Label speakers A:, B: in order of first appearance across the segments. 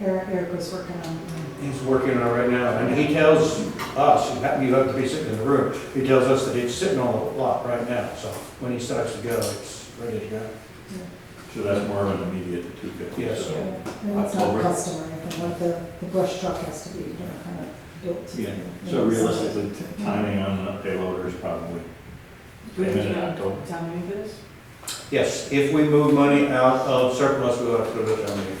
A: was working on.
B: He's working on it right now, and he tells us, you have, you have to be sitting in the room, he tells us that it's sitting on the lot right now, so when he starts to go, it's ready to go.
C: So that's more of an immediate two fifty.
B: Yes.
A: Yeah,
C: So
A: And it's not
C: October.
A: customary, but what the, the brush truck has to be, you know, kind of built. to-
C: Yeah. so realistically, t- timing on the payloader is probably
D: Do we have
C: Payment in
D: to go
C: October.
D: to town meeting for this?
B: Yes, if we move money out of surplus, we'll have to go to town meeting.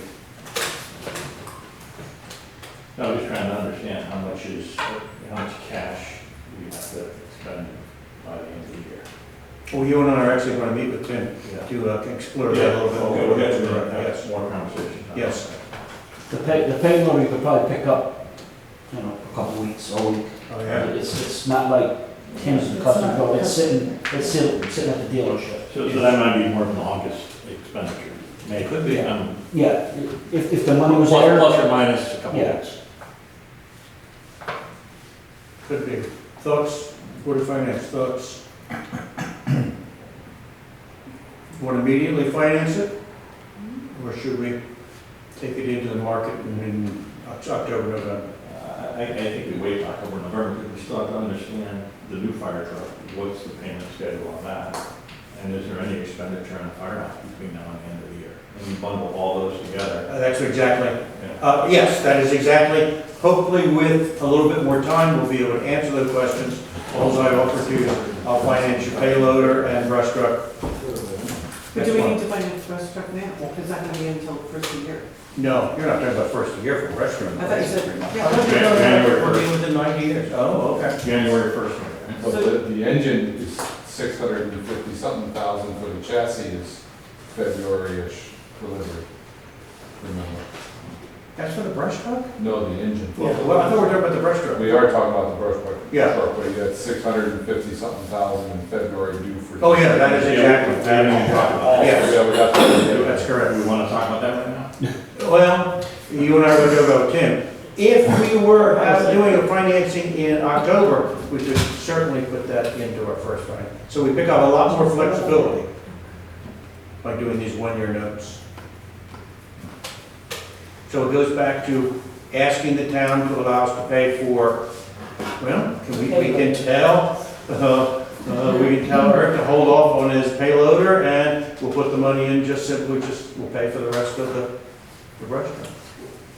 C: No, I'm just trying to understand how much is, how much cash we have to spend by the end of the year.
B: Well, you and I are actually gonna meet with Tim
C: Yeah.
B: to uh, explore that a little bit.
C: Okay,
B: more.
C: we'll get to that, that's
B: Yes.
C: more conversation.
B: Yes.
E: The pay, the payload you could probably pick up, you know, a couple weeks, a week.
B: Oh, yeah.
E: It's, it's not like Tim's
A: It's
E: and
A: not
E: Custom Pro, it's sitting,
A: customary.
E: it's sitting, sitting at the dealership.
C: So, so that might be more of an August expenditure, maybe.
B: Could be.
C: Um,
E: Yeah, i- if, if the money
C: Plus,
E: was there.
C: plus or minus a couple
E: Yeah.
C: bucks.
B: Could be. Thoughts, Board of Finance, thoughts? Want to immediately finance it? Or should we take it into the market and in October, November?
C: Uh, I, I think we wait October, November, because we still have to understand the new fire truck, what's the payment schedule on that? And is there any expenditure on the firehouse between now and the end of the year? And we bundle all those together.
B: Uh, That's exactly,
C: Yeah.
B: uh, yes, that is exactly. Hopefully with a little bit more time, we'll be able to answer those questions. All I offer to you, I'll finance your payloader and brush truck.
D: But do we
B: That's
D: need to find a brush truck now? Because that's not gonna be until the first of the year.
B: No, you're not talking about first of the year for restroom.
D: I thought you said,
C: Yeah,
D: yeah.
C: January
B: We're
C: first,
B: within ninety years. Oh, okay.
C: January first.
F: But the, the engine is six hundred and fifty something thousand, for the chassis is February-ish delivery, remember?
B: That's for the brush truck?
F: No, the engine.
B: Well, I thought we were talking about the brush truck.
F: We are talking about the brush truck.
B: Yeah.
F: truck, But you got six hundred and fifty something thousand in February due for.
B: Oh, yeah, that is exactly.
C: Yeah.
B: Yes,
F: Yeah, we got that.
B: that's
C: Do we
B: correct.
C: wanna talk about that right now?
B: Well, you and I were talking about Tim. If we were uh, doing a financing in October, we could certainly put that into our first fund. So we pick up a lot more flexibility by doing these one-year notes. So it goes back to asking the town to allow us to pay for, well, can we, we can tell, uh, uh, we can tell Eric to hold off on his payloader and we'll put the money in just simply, just, we'll pay for the rest of the, the brush truck.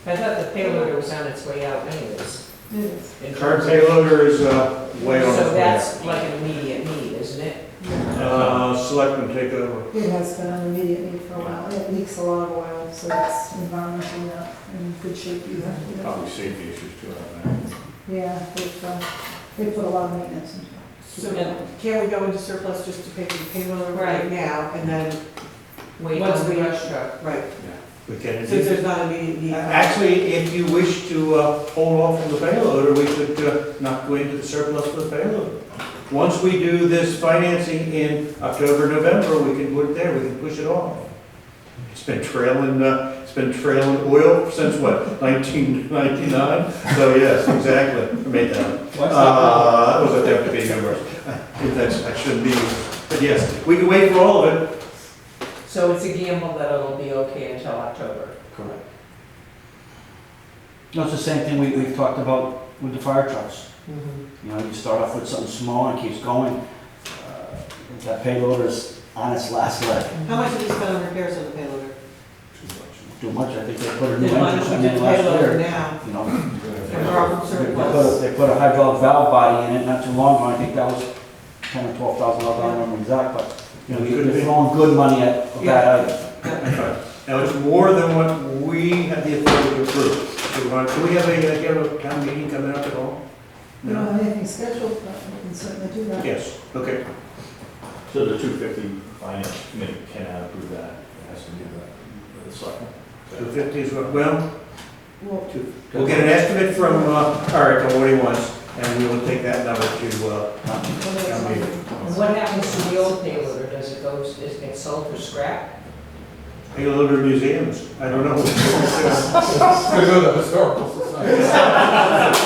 G: I thought the payloader was on its way out anyways.
A: It is.
G: in
B: Current
G: terms of-
B: payloader is, uh, way on
G: So
B: its way out.
G: that's like an immediate need, isn't it?
A: Yeah.
B: Uh, selectmen take over.
A: It has been an immediate need for a while. It leaks a lot of oil, so it's environmentally not in good shape either. you know.
C: Probably safety issues too, I don't know.
A: Yeah, they've, uh, they put a lot of maintenance into it.
D: So can we go into surplus just to pay the payroll right
G: Right.
D: now and then,
G: Wait
D: Once
G: on the
D: we-
G: brush truck. Uh,
D: right,
B: We can.
D: since there's not immediate need.
B: Actually, if you wish to uh, hold off on the payloader, we could uh, not go into the surplus for the payloader. Once we do this financing in October, November, we can put it there, we can push it off. It's been trailing, uh, it's been trailing oil since what, 1999? So yes, exactly, I made that up. Uh, That was a deputy number. That's- I shouldn't be, but yes, we can wait for all of it.
G: So it's a gamble that it'll be okay until October.
E: Correct. No, it's the same thing we, we've talked about with the fire trucks.
C: Mm-hmm.
E: You know, you start off with something small and it keeps going. Uh, if That payloader is on its last leg.
G: uh,
D: How much did we spend on repairs on the payloader?
E: Too much, I think they put a new
D: Then why
E: engine
D: don't we do
E: in there
D: the
E: last
D: payloader
E: year.
D: now?
E: You know,
D: And borrow from
E: They put, a-
D: surplus?
E: they put a hydraulic valve body in it not too long ago, I think that was ten or twelve thousand dollars, I don't remember exact, but, you know,
B: Could be.
E: you're throwing good money at a bad item.
B: Now, it's more than what we have the authority to approve. Do we want- do we have a, uh, do you have a town meeting coming up at all?
A: We don't have anything scheduled, but we can certainly do that.
B: Yes, okay.
C: So the two fifty finance committee cannot approve that, it has to be the, the selectmen.
B: Two fifty is what, well,
A: Well,
B: two- we'll get an estimate from uh, Eric on what he wants, and we will take that number to, uh,
A: whether it's
B: Town
A: on-
B: meeting.
G: And what happens to the old payloader? Does it go, is it sold for scrap?
B: payloader museums. I don't know.
F: Because of the historical society.